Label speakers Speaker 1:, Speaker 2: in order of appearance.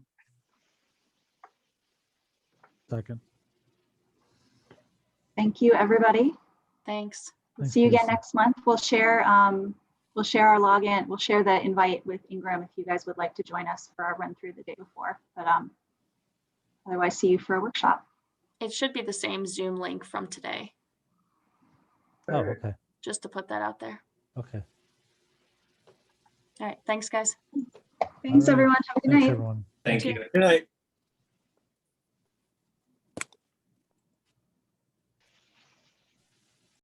Speaker 1: Second.
Speaker 2: Thank you, everybody.
Speaker 3: Thanks.
Speaker 1: Thanks,
Speaker 2: See you again
Speaker 1: Lisa.
Speaker 2: next month. We'll share, um, we'll share our login, we'll share the invite with Ingram if you guys would like to join us for our run through the day before. But um, otherwise, see you for a workshop.
Speaker 3: It should be the same Zoom link from today,
Speaker 1: Oh, okay,
Speaker 3: just to put that out there.
Speaker 1: okay.
Speaker 3: All right, thanks, guys.
Speaker 2: Thanks,
Speaker 1: right.
Speaker 2: everyone. Have a good
Speaker 1: Thanks,
Speaker 2: night.
Speaker 1: everyone.
Speaker 4: Thank
Speaker 3: Thank
Speaker 4: you.
Speaker 5: Good night.